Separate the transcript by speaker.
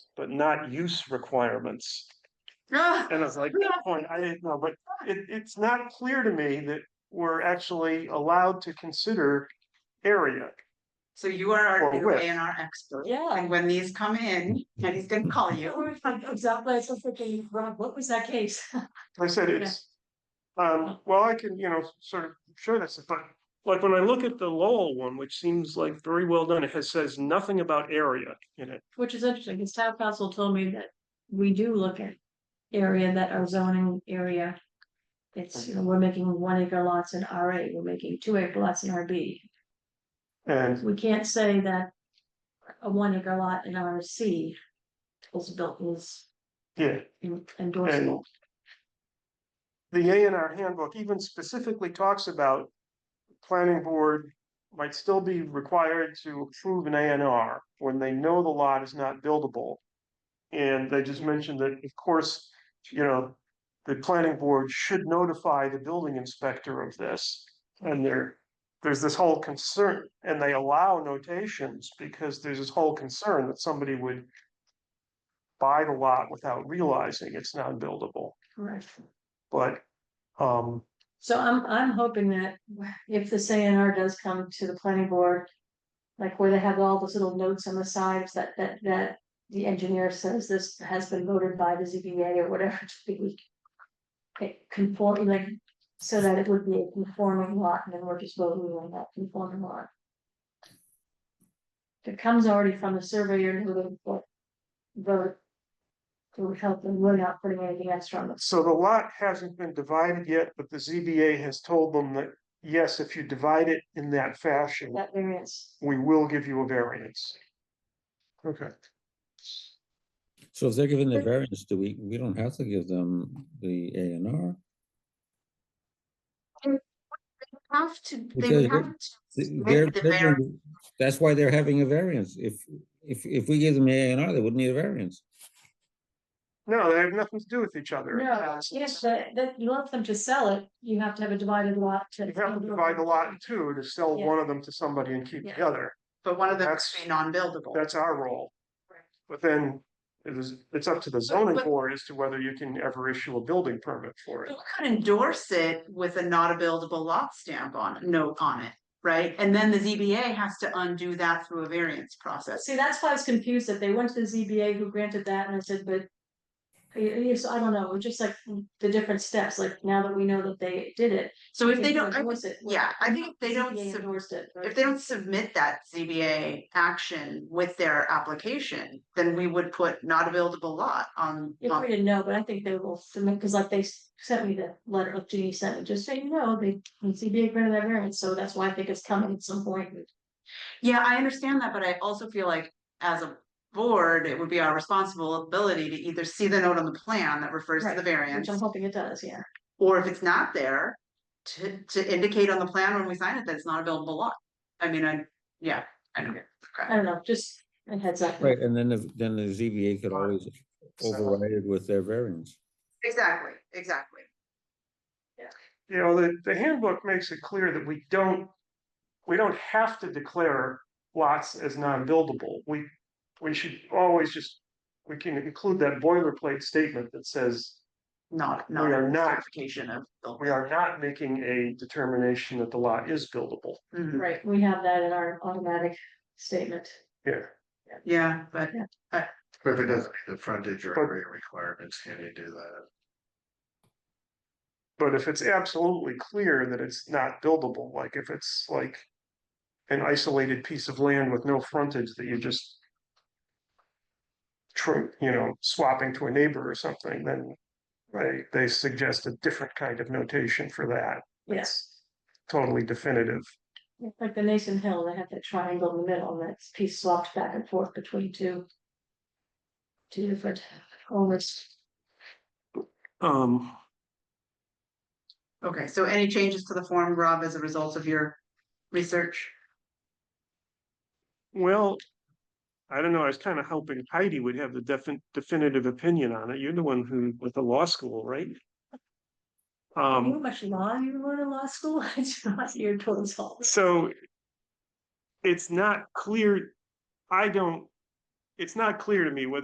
Speaker 1: but not use requirements.
Speaker 2: Ah,
Speaker 1: And I was like, good point, I didn't know, but it, it's not clear to me that we're actually allowed to consider area.
Speaker 2: So you are
Speaker 1: Or
Speaker 2: our new
Speaker 1: with.
Speaker 2: A and R expert.
Speaker 3: Yeah.
Speaker 2: And when these come in,
Speaker 1: Mm-hmm.
Speaker 2: and he's gonna call you.
Speaker 3: Exactly, I was thinking, Rob, what was that case?
Speaker 1: I said
Speaker 3: Yeah.
Speaker 1: it's. Um, well, I can, you know, sort of show this, but like when I look at the Lowell one, which seems like very well done, it has says nothing about area in it.
Speaker 3: Which is interesting, because town council told me that we do look at area that are zoning area. It's, you know, we're making one acre lots in RA, we're making two acre lots in RB.
Speaker 1: And
Speaker 3: We can't say that a one acre lot in RC is built is
Speaker 1: yeah,
Speaker 3: endorsable.
Speaker 1: the A and R handbook even specifically talks about. Planning board might still be required to approve an A and R when they know the lot is not buildable. And they just mentioned that, of course, you know, the planning board should notify the building inspector of this. And there, there's this whole concern, and they allow notations because there's this whole concern that somebody would. Buy the lot without realizing it's not buildable,
Speaker 3: Correct.
Speaker 1: but, um,
Speaker 3: So I'm, I'm hoping that if this A and R does come to the planning board. Like where they have all those little notes on the sides that, that, that the engineer says this has been voted by the ZBA or whatever to be. It conform, like, so that it would be a conforming lot and then we're just voting on that conforming lot. If it comes already from the surveyor who would vote. Vote. It would help them, we're not putting anything extra on the
Speaker 1: So the lot hasn't been divided yet, but the ZBA has told them that, yes, if you divide it in that fashion,
Speaker 3: that variance.
Speaker 1: we will give you a variance. Okay.
Speaker 4: So if they're given the
Speaker 3: But-
Speaker 4: variance, do we, we don't have to give them the A and R?
Speaker 2: Have to, they
Speaker 4: Because
Speaker 2: would have to.
Speaker 4: Th- they're-
Speaker 2: make the
Speaker 4: they're gonna
Speaker 2: variance.
Speaker 4: be- That's why they're having a variance. If, if, if we give them A and R, they wouldn't need a variance.
Speaker 1: No, they have nothing to do with each other.
Speaker 3: No,
Speaker 1: It's-
Speaker 3: yes, but that you want them to sell it, you have to have a divided lot to.
Speaker 1: You have to divide the lot in two to sell
Speaker 3: Yeah.
Speaker 1: one of them to somebody and keep the
Speaker 3: Yeah.
Speaker 1: other.
Speaker 2: But one of them
Speaker 1: That's-
Speaker 2: is non-buildable.
Speaker 1: That's our role.
Speaker 3: Correct.
Speaker 1: But then it is, it's up to the zoning
Speaker 2: but-
Speaker 1: board as to whether you can ever issue a building permit for it.
Speaker 2: You could endorse it with a not a buildable lot stamp on, note on it, right? And then the ZBA has to undo that through a variance process.
Speaker 3: See, that's why I was confused, that they went to the ZBA who granted that, and I said, but. Yes, I don't know, it was just like the different steps, like now that we know that they did it.
Speaker 2: So if they
Speaker 3: can
Speaker 2: don't, I
Speaker 3: endorse it.
Speaker 2: yeah, I think if they don't
Speaker 3: ZBA
Speaker 2: sub-
Speaker 3: endorsed it.
Speaker 2: if they don't submit that ZBA action with their application, then we would put not a buildable lot on.
Speaker 3: If
Speaker 2: on-
Speaker 3: we didn't know, but I think they will submit, because like they s- sent me the letter of Judy sent, me, just so you know, they, the ZBA granted that variance, so that's why I think it's coming at some point.
Speaker 2: Yeah, I understand that, but I also feel like as a board, it would be our responsibility to either see the note on the plan that refers to
Speaker 3: Right,
Speaker 2: the
Speaker 3: Which
Speaker 2: variance.
Speaker 3: I'm hoping it does, yeah.
Speaker 2: Or if it's not there, to, to indicate on the plan when we sign it that it's not a buildable lot. I mean, I, yeah, I don't
Speaker 3: I don't know, just a heads up.
Speaker 4: Right, and then, the- then the ZBA could always override it with their variance.
Speaker 2: Exactly, exactly.
Speaker 1: You know, the, the handbook makes it clear that we don't, we don't have to declare lots as non-buildable. We, we should always just, we can include that boilerplate statement that says
Speaker 2: Not,
Speaker 1: We
Speaker 2: not
Speaker 1: are
Speaker 2: a
Speaker 1: not-
Speaker 2: clarification of.
Speaker 1: we are not making a determination that the lot is buildable.
Speaker 2: Mhm.
Speaker 3: Right, we have that in our automatic statement.
Speaker 1: Yeah.
Speaker 2: Yeah, but
Speaker 5: But if it doesn't meet the frontage or
Speaker 1: But-
Speaker 5: area requirements, can you do that?
Speaker 1: But if it's absolutely clear that it's not buildable, like if it's like an isolated piece of land with no frontage that you just trim, you know, swapping to a neighbor or something, then they, they suggest a different kind of notation for that.
Speaker 3: Yes.
Speaker 1: Totally definitive.
Speaker 3: Like the Nathan Hill, they have that triangle in the middle and that piece swapped back and forth between two. Two different owners.
Speaker 1: Um,
Speaker 2: Okay, so any changes to the form, Rob, as a result of your research?
Speaker 1: well, I don't know, I was kind of hoping Heidi would have the defin- definitive opinion on it. You're the one who, with the law school, right?
Speaker 3: How
Speaker 1: Um,
Speaker 3: much law you learn in law school? It's not your total fault.
Speaker 1: so it's not clear, I don't, it's not clear to me whether